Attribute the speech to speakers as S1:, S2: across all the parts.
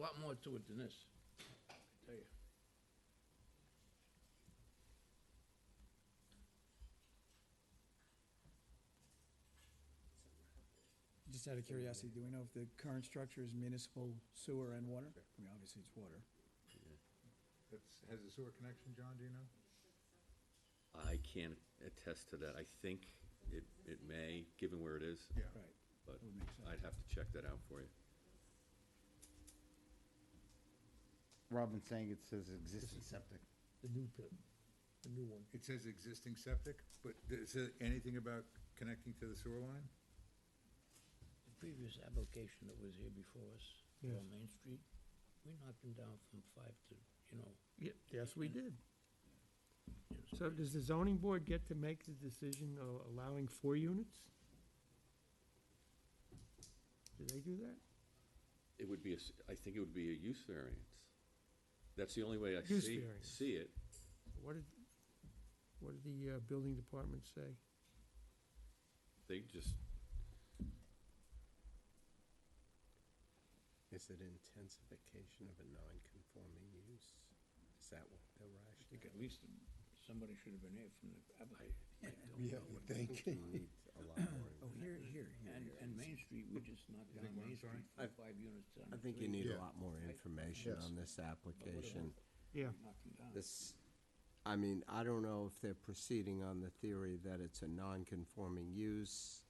S1: lot more to it than this, I tell you.
S2: Just out of curiosity, do we know if the current structure is municipal sewer and water? I mean, obviously it's water.
S3: That's, has a sewer connection, John, do you know?
S4: I can't attest to that. I think it, it may, given where it is,
S3: Yeah.
S2: Right,
S4: but
S2: that would make sense.
S4: I'd have to check that out for you.
S5: Robin's saying it says existing septic.
S6: the new pit, the new one.
S3: It says existing septic, but does it say anything about connecting to the sewer line?
S1: The previous application that was here before us,
S6: Yes.
S1: on Main Street, we knocked them down from five to, you know,
S6: Yes, we did.
S1: it was-
S6: So does the zoning board get to make the decision of allowing four units? Do they do that?
S4: It would be, a s- I think it would be a use variance. That's the only way I
S6: Use
S4: see,
S6: variance.
S4: see it.
S6: What did, what did the uh, building department say?
S4: They just,
S7: Is it intensification of a non-conforming use? Is that what
S1: I
S7: the
S1: think
S7: rationale?
S1: at least somebody should have been here from the
S4: I,
S1: application.
S4: I don't
S7: Yeah,
S4: know.
S7: I think you need a lot more.
S2: Oh, here, here, here,
S1: And,
S2: here.
S1: and Main Street, we just knocked
S3: You
S1: down
S3: think what,
S1: Main
S3: I'm sorry?
S1: Street from five units down.
S7: I
S1: to
S7: think you
S1: three.
S7: need
S3: Yeah.
S7: a lot more information
S3: Yes.
S7: on this application.
S6: Yeah,
S1: We knocked them down.
S7: This, I mean, I don't know if they're proceeding on the theory that it's a non-conforming use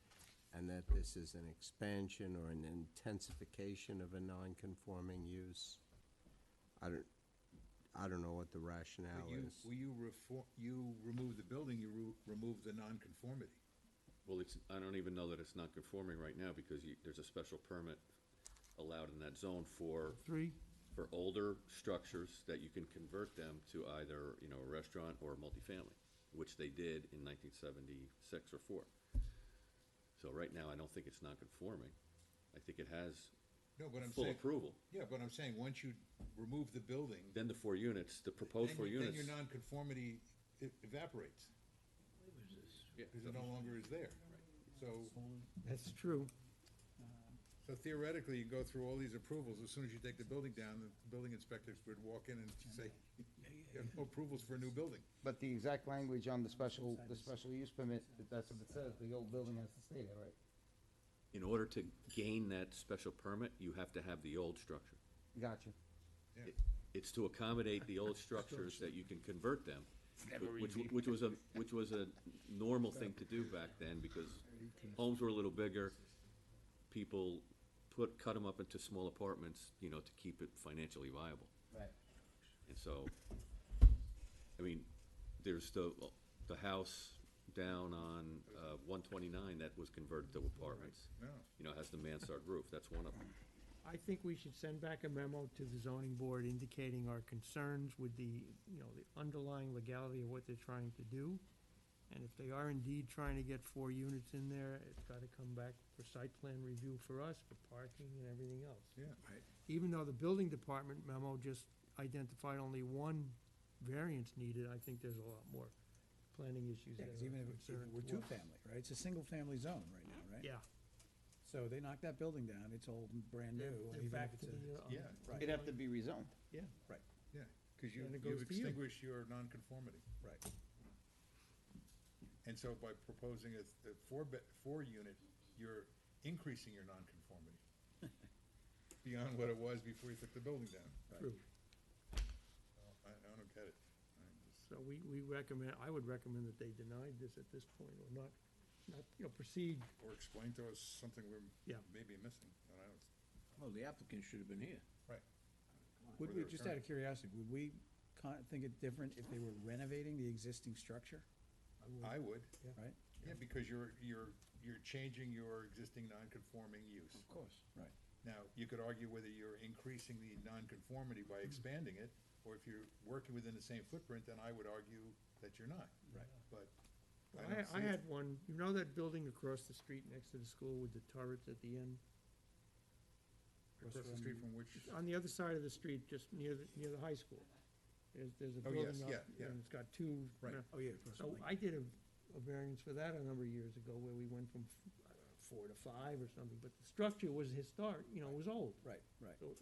S7: and that this is an expansion or an intensification of a non-conforming use. I don't, I don't know what the
S3: But
S7: rationale
S3: you,
S7: is.
S3: well, you refor, you remove the building, you ru- remove the nonconformity.
S4: well, it's, I don't even know that it's not conforming right now because you, there's a special permit allowed in that zone for
S6: three,
S4: for older structures that you can convert them to either, you know, a restaurant or a multifamily, which they did in nineteen seventy-six or four. So right now, I don't think it's non-conforming. I think it has
S3: No, but I'm
S4: full
S3: saying,
S4: approval.
S3: yeah, but I'm saying, once you remove the building,
S4: Then the four units, the proposed
S3: then
S4: four
S3: you- then
S4: units.
S3: your nonconformity e- evaporates,
S1: What was this?
S4: Yeah,
S3: because it no longer is there. So,
S6: that's true.
S3: so theoretically, you go through all these approvals, as soon as you take the building down, the building inspectors would walk in and say, you have no approvals for a new building.
S5: But the exact language on the special, the special use permit, that's what it says, the old building has to stay there, right?
S4: In order to gain that special permit, you have to have the old structure.
S5: Gotcha.
S3: Yeah.
S4: It- It's to accommodate the old structures that you can convert them, wh- which, w- which was a, which was a normal thing to do back then, because homes were a little bigger. People put, cut them up into small apartments, you know, to keep it financially viable.
S5: Right.
S4: And so, I mean, there's the, the house down on, uh, one twenty-nine that was converted to apartments.
S3: No.
S4: You know, has the mansard roof, that's one of them.
S6: I think we should send back a memo to the zoning board indicating our concerns with the, you know, the underlying legality of what they're trying to do. And if they are indeed trying to get four units in there, it's gotta come back for site plan review for us, for parking and everything else.
S3: Yeah, right.
S6: Even though the building department memo just identified only one variance needed, I think there's a lot more planning issues
S2: Yeah,
S6: that
S2: 'cause
S6: are
S2: even if it- if it
S6: concerned.
S2: we're
S6: to us.
S2: two-family, right, it's a single-family zone right now, right?
S6: Yeah.
S2: So they knocked that building down, it's old and brand new,
S6: They're-
S2: and
S6: they're
S2: even
S6: back
S2: if it's
S6: to the,
S2: a,
S6: uh,
S3: Yeah,
S2: right,
S5: It'd have to be rezoned.
S6: Yeah.
S3: yeah, because Um, you,
S6: Then
S3: you've
S6: it goes to you.
S3: extinguished your nonconformity.
S2: right.
S3: And so by proposing a, th- a four be, four unit, you're increasing your nonconformity beyond what it was before you took the building down.
S6: True.
S3: I, I don't get it. I just-
S6: So we, we recommend, I would recommend that they denied this at this point, or not, not, you know, proceed.
S3: Or explain to us something we're
S6: Yeah.
S3: maybe missing, and I don't,
S1: Well, the applicant should have been here.
S3: right.
S2: Would
S3: Or
S2: we,
S3: their
S2: just out of
S3: current-
S2: curiosity, would we con- think it different if they were renovating the existing structure,
S3: I would,
S2: right?
S3: yeah, because you're, you're, you're changing your existing nonconforming use.
S2: Of course. Right.
S3: Now, you could argue whether you're increasing the nonconformity by expanding it, or if you're working within the same footprint, then I would argue that you're not.
S2: Right.
S3: But I don't
S6: I, I
S3: see it.
S6: had one, you know that building across the street next to the school with the turrets at the end?
S3: Across the street from which,
S6: On the other side of the street, just near, the near the high school. There's, there's a
S3: Oh,
S6: building
S3: yes,
S6: up,
S3: yeah, yeah.
S6: and it's got two.
S3: Right.
S6: uh,
S2: Oh, yeah, of course.
S6: So I did a, a variance for that a number of years ago, where we went from, I don't know, four to five or something, but the structure was historic, you know, it was old.
S2: Right, right.
S6: So